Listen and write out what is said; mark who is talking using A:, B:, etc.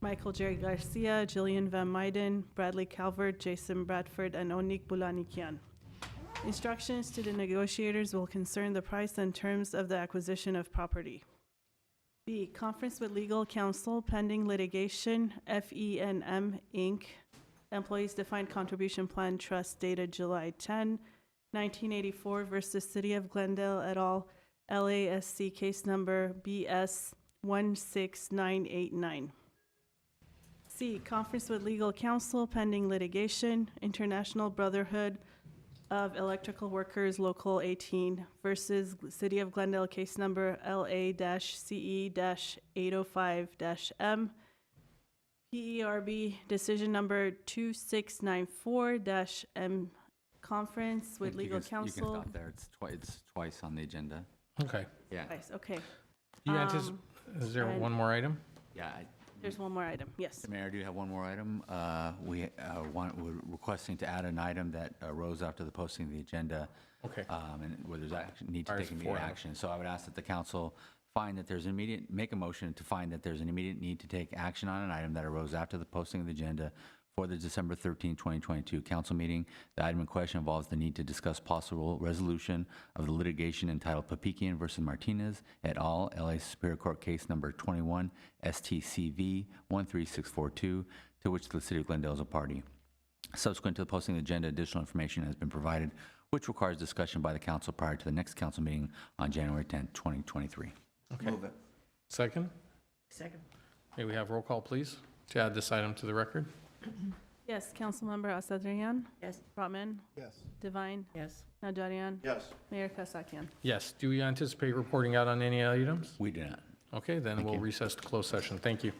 A: Michael Jerry Garcia, Jillian Van Meiden, Bradley Calvert, Jason Bradford, and Onik Bulanikian. Instructions to the negotiators will concern the price and terms of the acquisition of property. B, conference with legal counsel pending litigation, FENM Inc., Employees Defined Contribution Plan Trust dated July 10, 1984 versus City of Glendale et al., LASC case number BS 16989. C, conference with legal counsel pending litigation, International Brotherhood of Electrical Workers Local 18 versus G- City of Glendale case number E LA-CE-805-M, PERB E decision number 2694-M, conference with
B: think you
A: legal
B: can s- You can
A: counsel.
B: stop there. It's twice, it's twice on the agenda.
C: Okay.
B: Yeah,
A: Twice, Okay,
C: You anticipate, is there
A: and-
C: one more item?
B: yeah. I-
A: there's one more item, yes.
B: Mayor, I do have one more item. Uh, We uh, want, we're requesting to add an item that arose after the posting of the agenda.
C: Okay.
B: um, And where there's action, need to
C: Requires
B: take immediate
C: four hours.
B: action. So I would ask that the council find that there's an immediate, make a motion to find that there's an immediate need to take action on an item that arose after the posting of the agenda for the December 13, 2022 council meeting. The item in question involves the need to discuss possible resolution of the litigation entitled Papikian versus Martinez et al., LA Superior Court Case Number 21 STCV 13642, to which the city of Glendale is a party. Subsequent to the posting of the agenda, additional information has been provided, which requires discussion by the council prior to the next council meeting on January 10, 2023.
C: Okay. Second? Second. May we have roll call, please, to add this item to the record?
A: Yes, Councilmember Asadrian?
D: Yes.
A: Brotman?
E: Yes.
A: Divine?
D: Yes.
A: Najarian?
E: Yes.
A: Mayor Kasakian?
C: Yes. Do we anticipate reporting out on any items?
B: We do not.
C: Okay, then we'll recess to closed session. Thank you.